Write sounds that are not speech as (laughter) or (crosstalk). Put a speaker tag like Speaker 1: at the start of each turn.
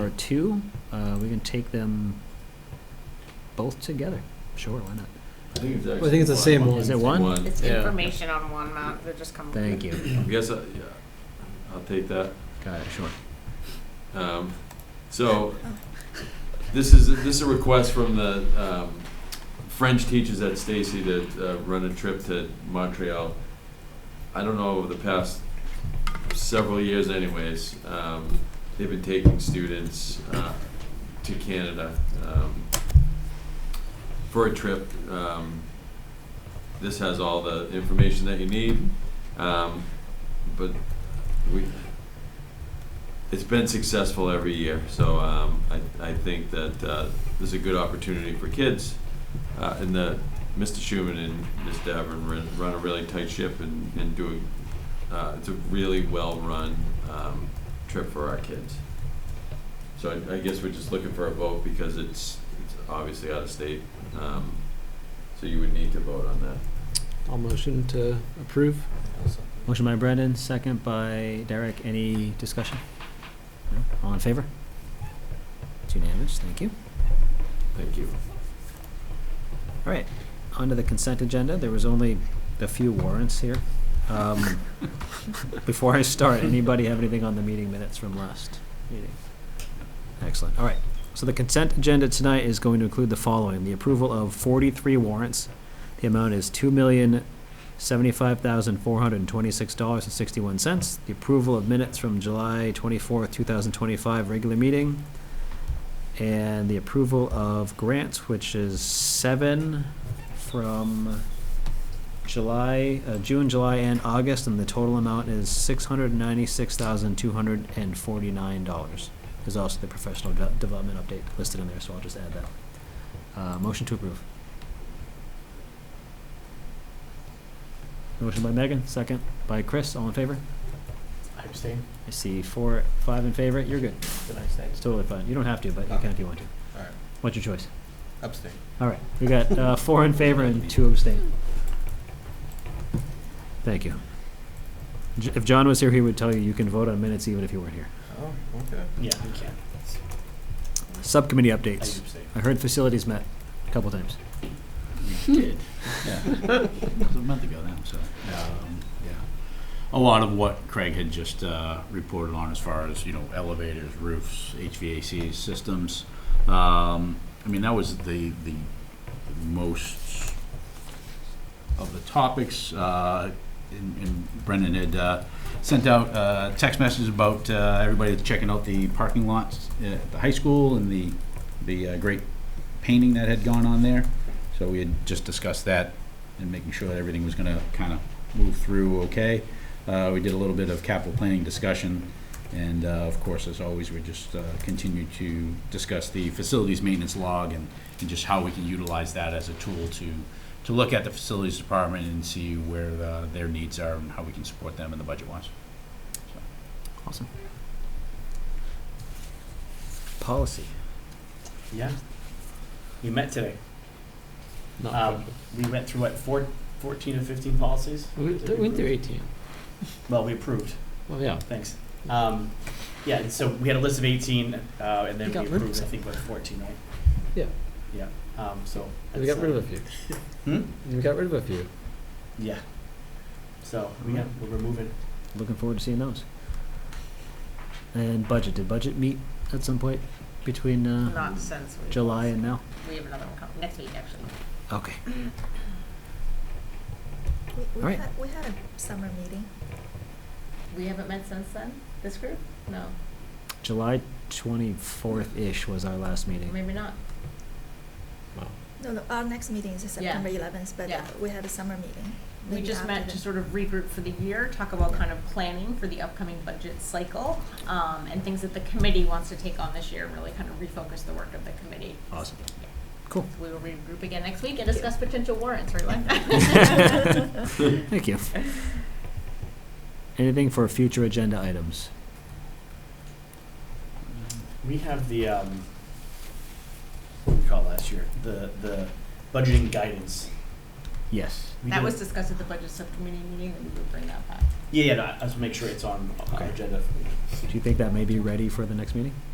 Speaker 1: or two, uh, we can take them both together. Sure, why not?
Speaker 2: I think it's
Speaker 3: I think it's the same
Speaker 1: Is
Speaker 3: one.
Speaker 1: it one?
Speaker 4: It's
Speaker 3: Yeah.
Speaker 4: information on one map, they just come.
Speaker 1: Thank you.
Speaker 2: I guess, I- yeah, I'll take that.
Speaker 1: Got it, sure.
Speaker 2: Um, So, this is, this is a request from the um, French teachers at Stacy to uh, run a trip to Montreal. I don't know, over the past several years anyways, um, they've been taking students uh, to Canada um, for a trip. Um, This has all the information that you need, um, but we, it's been successful every year, so um, I, I think that uh, this is a good opportunity for kids. Uh, and the, Mr. Schuman and Ms. Davern run, run a really tight ship and, and do a, uh, it's a really well-run um, trip for our kids. So I, I guess we're just looking for a vote because it's, it's obviously out of state. Um, so you would need to vote on that.
Speaker 3: I'll motion to approve.
Speaker 1: Motion by Brendan, second by Derek. Any discussion? No? All in favor? It's unanimous, thank you.
Speaker 2: Thank you.
Speaker 1: All right, onto the consent agenda. There was only a few warrants here. Um, Before I start, anybody have anything on the meeting minutes from last meeting? Excellent, all right. So the consent agenda tonight is going to include the following. The approval of forty-three warrants. The amount is two million seventy-five thousand four hundred and twenty-six dollars and sixty-one cents. The approval of minutes from July twenty-fourth, two thousand twenty-five, regular meeting and the approval of grants, which is seven from July, uh, June, July, and August, and the total amount is six hundred ninety-six thousand two hundred and forty-nine dollars. There's also the professional de- development update listed in there, so I'll just add that. Uh, motion to approve. Motion by Megan, second by Chris, all in favor?
Speaker 5: I abstain.
Speaker 1: I see four, five in favor, you're good.
Speaker 5: Did I abstain?
Speaker 1: It's totally fine. You don't have to, but you can if you want to.
Speaker 5: Alright.
Speaker 1: What's your choice?
Speaker 5: Abstain.
Speaker 1: All right, we got uh, four in favor and two abstain. Thank you. J- If John was here, he would tell you, you can vote on minutes even if you weren't here.
Speaker 5: Oh, okay. Yeah, you can.
Speaker 1: Subcommittee
Speaker 5: I
Speaker 1: updates.
Speaker 5: abstain.
Speaker 1: I heard facilities met a couple times.
Speaker 6: Yeah, (laughs) it was a month ago now, so, um, yeah. A lot of what Craig had just uh, reported on as far as, you know, elevators, roofs, HVAC systems. Um, I mean, that was the, the most of the topics. uh, And and Brendan had uh, sent out uh, text messages about uh, everybody checking out the parking lots at the high school and the, the uh, great painting that had gone on there. So we had just discussed that and making sure that everything was gonna kind of move through okay. Uh, we did a little bit of capital planning discussion, and, uh, of course, as always, we just, uh, continue to discuss the facilities maintenance log and, and just how we can utilize that as a tool to, to look at the facilities department and see where, uh, their needs are and how we can support them in the budget wise.
Speaker 1: Awesome. Policy.
Speaker 5: Yeah. We met today.
Speaker 3: Not
Speaker 5: Um, we went through what, four, fourteen or fifteen policies?
Speaker 3: We
Speaker 5: Did we
Speaker 3: went through
Speaker 5: approve?
Speaker 3: eighteen.
Speaker 5: Well, we approved,
Speaker 3: Well, yeah.
Speaker 5: thanks. Um, yeah, and so we had a list of eighteen, uh, and
Speaker 3: We
Speaker 5: then we
Speaker 3: got rid of
Speaker 5: approved, I
Speaker 3: some.
Speaker 5: think, what, fourteen, right?
Speaker 3: Yeah.
Speaker 5: Yeah, um, so.
Speaker 3: We
Speaker 5: that's,
Speaker 3: got rid
Speaker 5: uh,
Speaker 3: of a few.
Speaker 5: Hmm?
Speaker 3: We got rid of a few.
Speaker 5: Yeah. So, we got, we're moving.
Speaker 1: Looking forward to seeing those. And budget, did budget meet at some point between uh,
Speaker 4: Not since we.
Speaker 1: July and now?
Speaker 4: We have another one coming, next week, actually.
Speaker 1: Okay.
Speaker 7: We- we've
Speaker 1: Alright.
Speaker 7: had- We had a summer meeting.
Speaker 4: We haven't met since then, this group? No,
Speaker 1: July 24th-ish was our last meeting.
Speaker 4: maybe not.
Speaker 7: No, no, our next meeting is September eleventh, but
Speaker 4: Yeah.
Speaker 7: we had a summer meeting.
Speaker 4: We
Speaker 7: maybe
Speaker 4: just
Speaker 7: after
Speaker 4: met
Speaker 7: that.
Speaker 4: to sort of regroup for the year, talk about kind of planning for the upcoming budget cycle, um, and things that the committee wants to take on this year, and really kind of refocus the work of the committee.
Speaker 1: Awesome.
Speaker 4: Yeah.
Speaker 1: Cool.
Speaker 4: So we will regroup again next week and discuss potential warrants, right,
Speaker 1: (laughs)
Speaker 4: (laughs) Len?
Speaker 1: (laughs) Thank you. Anything for future agenda items?
Speaker 5: We have the, um, what did we call it last year? The, the budgeting guidance.
Speaker 1: Yes.
Speaker 5: We
Speaker 4: That
Speaker 5: did-
Speaker 4: was discussed at the budget subcommittee meeting, and we will bring uh, that back.
Speaker 5: Yeah, yeah, no, I just make sure it's on our
Speaker 1: Okay.
Speaker 5: agenda.
Speaker 1: Do you think that may be ready for the next meeting?